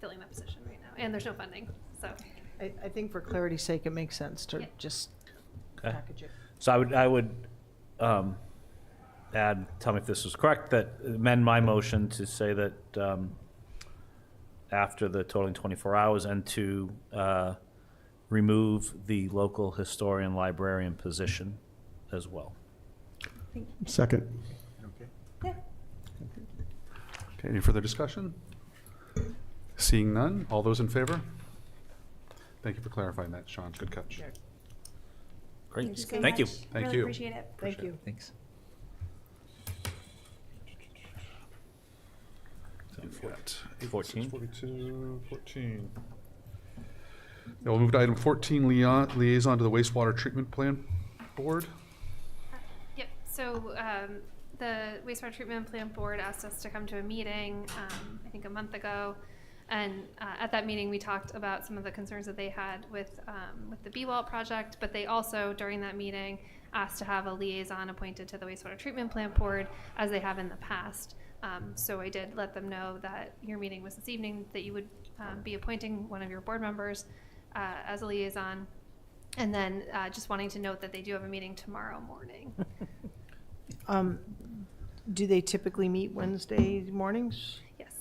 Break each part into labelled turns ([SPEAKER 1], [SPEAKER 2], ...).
[SPEAKER 1] filling that position right now, and there's no funding, so.
[SPEAKER 2] I, I think for clarity's sake, it makes sense to
[SPEAKER 1] Yeah.
[SPEAKER 2] just
[SPEAKER 3] Okay.
[SPEAKER 2] package it.
[SPEAKER 3] So I would, I would um, add, tell me if this is correct, that amend my motion to say that um, after the totaling 24 hours and to uh, remove the local historian librarian position as well.
[SPEAKER 4] Second.
[SPEAKER 5] Okay.
[SPEAKER 1] Yeah.
[SPEAKER 5] Okay, any further discussion? Seeing none, all those in favor? Thank you for clarifying that, Sean, good catch.
[SPEAKER 2] Sure.
[SPEAKER 3] Great,
[SPEAKER 1] so
[SPEAKER 3] thank you.
[SPEAKER 1] much.
[SPEAKER 5] Thank
[SPEAKER 1] Really
[SPEAKER 5] you.
[SPEAKER 1] appreciate it.
[SPEAKER 2] Thank
[SPEAKER 5] Appreciate
[SPEAKER 2] you.
[SPEAKER 6] Thanks.
[SPEAKER 5] We've got eight,
[SPEAKER 3] 14.
[SPEAKER 5] six, 42, 14. Now we'll move to item 14, liaison liaison to the wastewater treatment plan board.
[SPEAKER 1] Yep, so um, the wastewater treatment plant board asked us to come to a meeting, um, I think a month ago. And uh, at that meeting, we talked about some of the concerns that they had with, um, with the B-Wall project, but they also, during that meeting, asked to have a liaison appointed to the wastewater treatment plant board, as they have in the past. Um, So I did let them know that your meeting was this evening, that you would um, be appointing one of your board members uh, as a liaison. And then uh, just wanting to note that they do have a meeting tomorrow morning.
[SPEAKER 2] Um, do they typically meet Wednesday mornings?
[SPEAKER 1] Yes,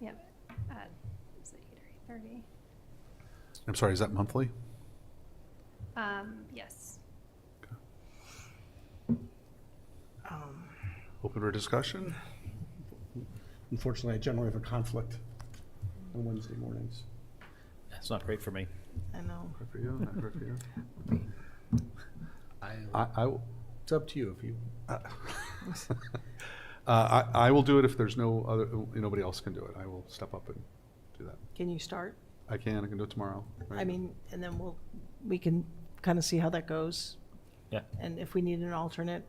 [SPEAKER 1] yep, at, is it eight or eight thirty?
[SPEAKER 5] I'm sorry, is that monthly?
[SPEAKER 1] Um, yes.
[SPEAKER 2] Um,
[SPEAKER 5] Open for discussion?
[SPEAKER 4] Unfortunately, I generally have a conflict on Wednesday mornings.
[SPEAKER 3] That's not great for me.
[SPEAKER 2] I know.
[SPEAKER 5] Good for you, not good for you. I, I, will-
[SPEAKER 7] It's up to you if you,
[SPEAKER 5] uh, I, I will do it if there's no other, nobody else can do it. I will step up and do that.
[SPEAKER 2] Can you start?
[SPEAKER 5] I can, I can do it tomorrow.
[SPEAKER 2] I
[SPEAKER 5] right?
[SPEAKER 2] mean, and then we'll, we can kind of see how that goes.
[SPEAKER 3] Yeah.
[SPEAKER 2] And if we need an alternate,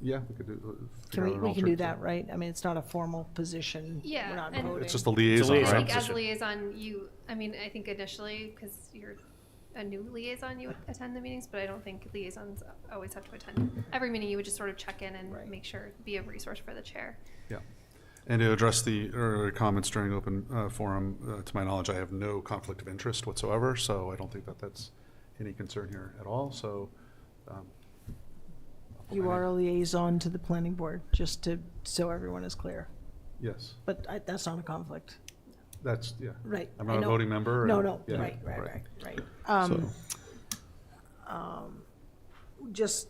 [SPEAKER 5] Yeah, we could do. uh,
[SPEAKER 2] can
[SPEAKER 5] figure
[SPEAKER 2] we,
[SPEAKER 5] out an
[SPEAKER 2] we can do
[SPEAKER 5] alternate.
[SPEAKER 2] that, right? I mean, it's not a formal position.
[SPEAKER 1] Yeah,
[SPEAKER 2] We're not
[SPEAKER 1] and-
[SPEAKER 2] voting.
[SPEAKER 5] It's just a
[SPEAKER 3] It's a
[SPEAKER 5] liaison,
[SPEAKER 1] And I
[SPEAKER 3] liaison.
[SPEAKER 5] right?
[SPEAKER 1] think as
[SPEAKER 3] position.
[SPEAKER 1] liaison, you, I mean, I think initially, because you're a new liaison, you would attend the meetings, but I don't think liaisons always have to attend. Every meeting, you would just sort of check in
[SPEAKER 2] Right.
[SPEAKER 1] and make sure, be a resource for the chair.
[SPEAKER 5] Yeah. And to address the earlier comments during open uh, forum, uh, to my knowledge, I have no conflict of interest whatsoever, so I don't think that that's any concern here at all, so. um,
[SPEAKER 2] You are a liaison to the planning board, just to, so everyone is clear.
[SPEAKER 5] Yes,
[SPEAKER 2] But I, that's not a conflict.
[SPEAKER 5] that's, yeah.
[SPEAKER 2] Right,
[SPEAKER 5] I'm
[SPEAKER 2] I
[SPEAKER 5] not a
[SPEAKER 2] know.
[SPEAKER 5] voting member.
[SPEAKER 2] No,
[SPEAKER 5] and-
[SPEAKER 2] no,
[SPEAKER 5] yeah,
[SPEAKER 2] right, right, right, right. Um, um, Just,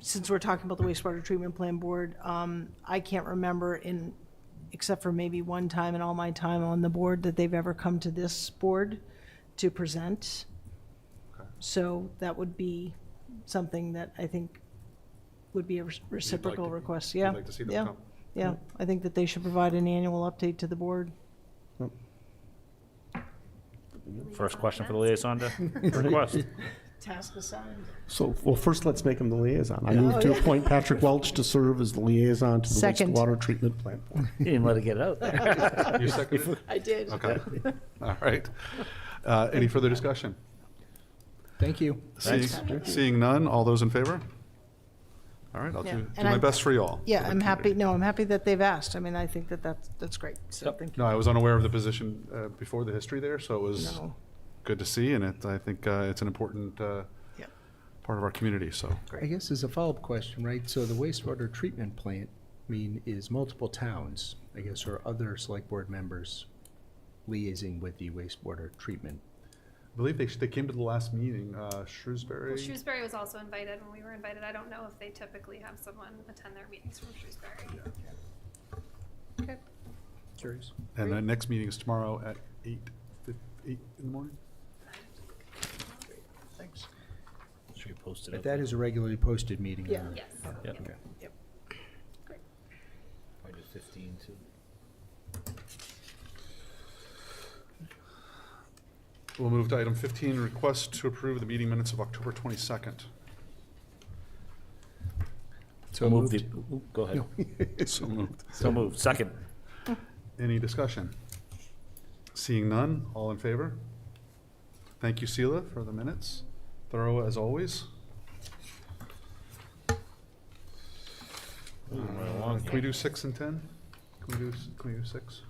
[SPEAKER 2] since we're talking about the wastewater treatment plan board, um, I can't remember in, except for maybe one time in all my time on the board, that they've ever come to this board to present.
[SPEAKER 5] Okay.
[SPEAKER 2] So that would be something that I think would be a reci- reciprocal
[SPEAKER 5] to-
[SPEAKER 2] request,
[SPEAKER 5] you'd
[SPEAKER 2] yeah.
[SPEAKER 5] like to see them
[SPEAKER 2] yeah,
[SPEAKER 5] come.
[SPEAKER 2] Yeah, I think that they should provide an annual update to the board.
[SPEAKER 3] First question for the liaison to request.
[SPEAKER 2] Task assigned.
[SPEAKER 4] So, well, first, let's make him the liaison. I move to appoint Patrick Welch to serve as the liaison to the
[SPEAKER 2] Second.
[SPEAKER 4] wastewater treatment plant board.
[SPEAKER 3] You didn't let it get out there.
[SPEAKER 5] You seconded it?
[SPEAKER 2] I did.
[SPEAKER 5] Okay, all right. Uh, Any further discussion?
[SPEAKER 7] thank you.
[SPEAKER 5] Seeing seeing none, all those in favor? All right, I'll
[SPEAKER 2] Yeah,
[SPEAKER 5] do do
[SPEAKER 2] and
[SPEAKER 5] my
[SPEAKER 2] I'm-
[SPEAKER 5] best for you all.
[SPEAKER 2] Yeah, I'm happy, no, I'm happy that they've asked. I mean, I think that that's, that's great, so
[SPEAKER 3] Yep.
[SPEAKER 2] thank you.
[SPEAKER 5] No, I was unaware of the position uh, before the history there, so it was
[SPEAKER 2] No,
[SPEAKER 5] good to see, and it, I think uh, it's an important uh,
[SPEAKER 2] Yep.
[SPEAKER 5] part of our community, so.
[SPEAKER 7] I guess as a follow-up question, right, so the wastewater treatment plant, I mean, is multiple towns, I guess, or other select board members liaising with the wastewater treatment?
[SPEAKER 5] I believe they, they came to the last meeting, uh, Shrewsbury.
[SPEAKER 1] Well, Shrewsbury was also invited, when we were invited, I don't know if they typically have someone attend their meetings from Shrewsbury.
[SPEAKER 7] Okay. Curious.
[SPEAKER 5] And the next meeting is tomorrow at eight, fif- eight in the morning?
[SPEAKER 2] thanks.
[SPEAKER 3] Should we post it
[SPEAKER 7] But
[SPEAKER 3] up?
[SPEAKER 7] that is a regularly posted meeting.
[SPEAKER 2] Yeah.
[SPEAKER 7] uh,
[SPEAKER 1] Yes,
[SPEAKER 3] Yep.
[SPEAKER 7] Okay.
[SPEAKER 6] Probably do 15 too.
[SPEAKER 5] We'll move to item fifteen, request to approve the meeting minutes of October twenty-second.
[SPEAKER 7] So
[SPEAKER 3] Move
[SPEAKER 7] moved.
[SPEAKER 3] the, ooh, go ahead.
[SPEAKER 7] No.
[SPEAKER 5] So moved.
[SPEAKER 3] So moved. Second.
[SPEAKER 5] Any discussion? Seeing none, all in favor? Thank you, Sela, for the minutes. Thorough as always. Uh, Can we do six and 10? Can we do, s- can we do six?